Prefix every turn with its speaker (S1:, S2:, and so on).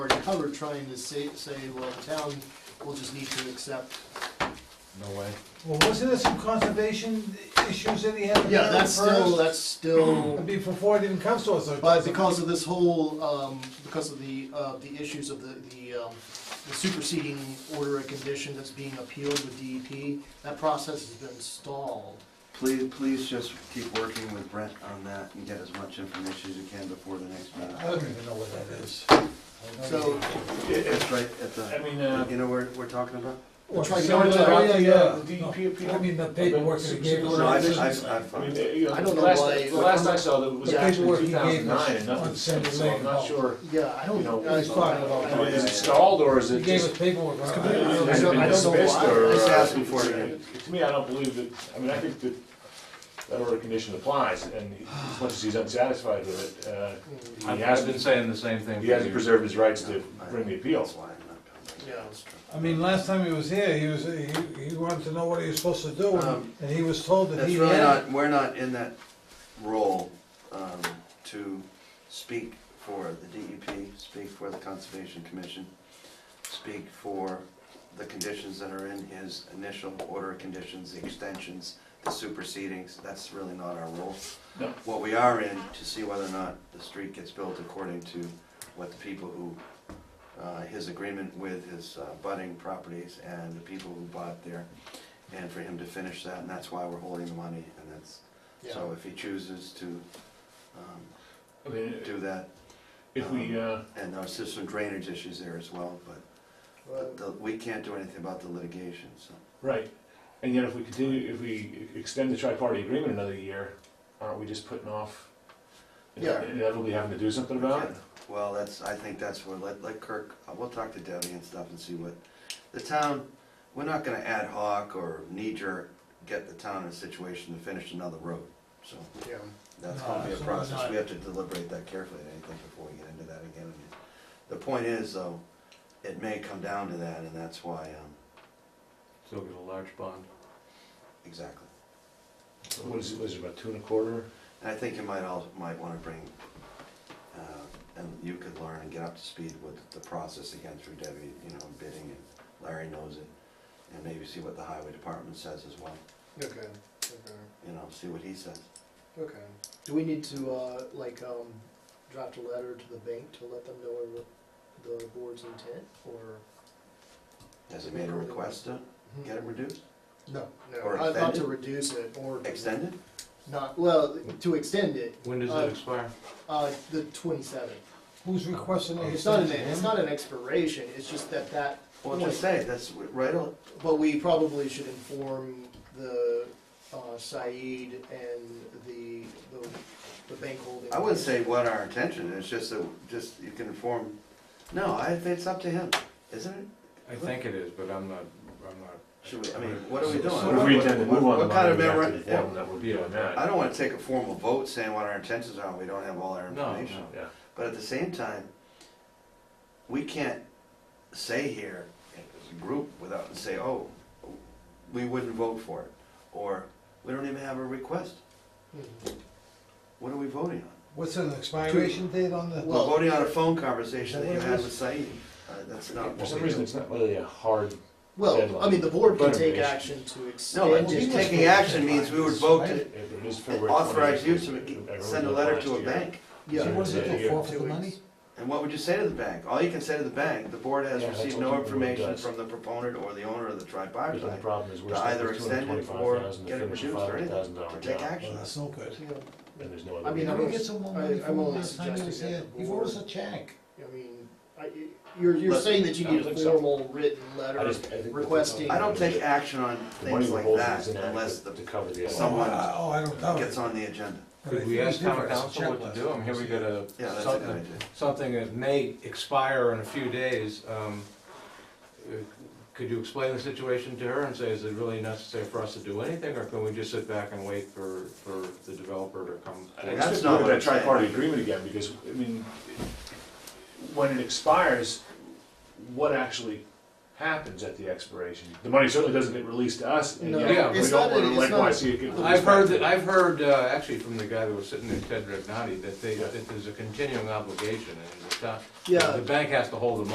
S1: cover trying to say, say, well, the town will just need to accept.
S2: No way.
S3: Well, wasn't there some conservation issues that he had? to
S1: Yeah,
S3: handle
S1: that's still,
S3: first?
S1: that's still,
S3: Before it even comes to us, so. it
S1: but
S3: doesn't-
S1: because of this whole, um, because of the, uh, the issues of the, the, um, the superseding order of condition that's being appealed with DEP, that process has been stalled.
S2: Please, please just keep working with Brent on that and get as much information as you can before the next meeting.
S3: I don't even know what that is.
S1: So,
S2: It's right at
S4: I
S2: the,
S4: mean, uh,
S2: you know where we're talking about?
S3: What,
S1: Try
S3: so
S1: going
S3: the-
S1: to-
S3: oh, yeah, yeah.
S4: The
S3: No,
S4: DEP appeal?
S3: I mean, the paperwork that he gave
S2: No, I,
S3: us.
S2: I, I
S4: I mean,
S2: found
S4: uh,
S2: it.
S4: you know,
S1: I don't
S4: the
S1: know
S4: last,
S1: why-
S4: the last I saw that was
S1: The
S4: back in
S3: paperwork he
S4: two
S3: gave us
S4: thousand nine and
S3: on
S4: nothing,
S3: Sunday
S4: so I'm not
S3: night.
S4: sure,
S1: yeah, I
S4: you
S1: don't,
S4: know.
S1: I,
S3: It's fine,
S1: I-
S4: you know,
S1: I-
S4: is it stalled or is
S3: He
S4: it
S3: gave
S4: just?
S3: us paperwork. on it.
S1: completely
S3: I don't
S1: I
S4: has it
S1: don't-
S4: been
S1: I don't know
S4: dismissed,
S1: why.
S4: or,
S2: Just
S4: uh,
S2: asking for it again.
S4: To me, I don't believe that, I mean, I think that that order of condition applies and he- as much as he's unsatisfied with it,
S1: Mm,
S4: uh, he
S5: I've I've been
S4: hasn't,
S5: saying the same thing
S4: he
S5: for
S4: hasn't
S5: years.
S4: preserved his rights to bring the
S2: That's
S4: appeals.
S2: why I'm not coming.
S1: Yeah.
S3: I mean, last time he was here, he was, he, he wanted to know what he was supposed to do, and
S2: Um,
S3: and he was told that
S2: That's
S3: he
S2: really
S3: had.
S2: not, we're not in that role, um, to speak for the DEP, speak for the Conservation Commission, speak for the conditions that are in his initial order of conditions, the extensions, the supersedings, that's really not our role.
S4: No.
S2: What we are in, to see whether or not the street gets built according to what the people who, uh, his agreement with his uh, budding properties and the people who bought there, and for him to finish that, and that's why we're holding the money, and that's,
S1: Yeah.
S2: so if he chooses to, um,
S4: I mean,
S2: do that,
S4: if we, uh,
S2: and there's just some drainage issues there as well, but
S1: Well,
S2: the- we can't do anything about the litigation, so.
S4: Right, and yet if we continue, if we extend the tri-party agreement another year, aren't we just putting off?
S1: Yeah.
S4: Inevitably having to do something about it?
S2: Well, that's, I think that's where, let, let Kirk, uh, we'll talk to Debbie and stuff and see what, the town, we're not gonna ad hoc or knee jerk get the town in a situation to finish another road, so
S1: yeah.
S2: that's
S3: No,
S2: gonna be a
S3: absolutely
S2: process,
S3: not.
S2: we have to deliberate that carefully, I think, before we get into that again. And The point is, though, it may come down to that, and that's why, um,
S5: Still get a large bond.
S2: exactly.
S4: What is it, was it about two and a quarter?
S2: And I think you might all, might wanna bring, uh, and you could learn and get up to speed with the process again through Debbie, you know, bidding, and Larry knows it. And maybe see what the highway department says as well,
S1: Okay, okay,
S2: you know, see what he says.
S1: okay. Do we need to, uh, like, um, draft a letter to the bank to let them know our- the board's intent, or?
S2: Has he made a request to get it reduced,
S1: No, no,
S2: Mm-hmm. Or
S1: I thought to
S2: extended?
S1: reduce it, or.
S2: extended?
S1: Not, well, to extend it,
S5: When does
S1: Uh,
S5: it expire?
S1: uh, the twenty-seventh.
S3: Who's requesting the
S1: It's not an,
S3: extension?
S1: it's not an expiration, it's just that that,
S2: Well, just say, that's right, on.
S1: but we probably should inform the, uh, Said and the, the, the bank holding.
S2: I wouldn't say what our intention is, just that, just, you can inform, no, I, think it's up to him, isn't it?
S5: I think it is, but I'm not, I'm not.
S2: Should we, I mean, what are we doing?
S4: If we intend to move on the
S2: What kind of
S4: money, we have to
S2: memorandum-
S4: inform that would be on
S2: I
S4: that.
S2: don't wanna take a formal vote saying what our intentions are, and we don't have all our
S5: No,
S2: information.
S5: no.
S4: Yeah,
S2: But at the same time, we can't say here, as a group, without, and say, oh, we wouldn't vote for it, or, we don't even have a request,
S1: Mhm.
S2: what are we voting on?
S3: What's an expiration date on the?
S2: We're
S1: Well-
S2: voting on a phone conversation that you
S3: Is that what
S2: had
S3: it
S2: with Said, uh, that's not
S4: for
S2: what
S4: some
S2: we
S4: reason,
S2: do.
S4: it's not really a hard,
S1: Well, I mean, the board can
S4: Deadline.
S1: take action to extend.
S2: No, but
S1: it.
S2: just taking action means we would vote to
S4: it is February twenty.
S2: authorize you to e- send a letter to a bank.
S1: Yeah.
S3: What does it
S4: Yeah,
S3: do,
S4: yeah.
S3: forfeit the
S1: Two
S3: money?
S1: weeks.
S2: And what would you say to the bank? All you can say to the bank, the board has
S4: Yeah, that's
S2: received
S4: what
S2: no
S4: the board
S2: information
S4: does.
S2: from the proponent or the owner of the
S4: But The
S2: tripartite
S4: problem is we're
S2: to
S4: stuck
S2: either
S4: with two hundred
S2: extend it
S4: twenty-five
S2: or
S4: thousand to
S2: get it
S4: finish a
S2: reduced or
S4: five hundred
S2: anything,
S4: thousand
S2: or
S4: dollar
S2: take
S4: job,
S2: action.
S3: no good.
S1: Yeah.
S4: and there's no
S1: I
S4: other.
S1: mean,
S3: Did
S4: way.
S3: we get some more money
S1: I-
S3: from
S1: I'm
S3: him
S1: only
S3: last time he was
S1: suggesting
S3: here?
S1: that the
S3: He wrote us a
S1: board-
S3: check.
S1: I mean, I, you're, you're
S2: Listen,
S1: saying that you
S4: I don't
S1: need a
S4: think so.
S1: formal written
S4: I
S1: letter
S4: just- I think that-
S1: requesting.
S2: I don't take action on
S4: The money
S2: things
S4: we're
S2: like
S4: holding
S2: that
S4: is inadequate
S2: unless the
S4: To cover the.
S2: someone
S3: Oh, I- Oh, I don't doubt it.
S2: gets on the agenda.
S3: But I
S5: Could
S3: think
S5: we
S3: he
S5: ask
S3: did
S5: town
S3: write us a
S5: council
S3: check
S5: what
S3: last
S5: to do? I'm
S3: time
S5: here we
S3: he was
S5: got a,
S2: Yeah, that's a good
S5: something,
S2: idea.
S5: something that may expire in a few days. Um, uh, Could you explain the situation to her and say, is it really necessary for us to do anything? Or can we just sit back and wait for, for the developer to come?
S4: I
S2: That's
S4: just
S2: not
S4: look
S2: what
S4: at that
S2: I'm saying.
S4: tri-party agreement again, because, I mean, when it expires, what actually happens at the expiration? The money certainly doesn't get released to us, and
S1: No,
S5: Yeah.
S4: yet we
S1: it's
S4: don't
S1: not-
S4: wanna
S1: it's not-
S4: likewise see it get released.
S5: I've heard,
S4: back.
S5: that I've heard, uh, actually from the guy that was sitting there, Ted Regnati, that they,
S4: Yeah.
S5: that there's a continuing obligation and the town,
S1: Yeah.
S5: the bank has to hold the money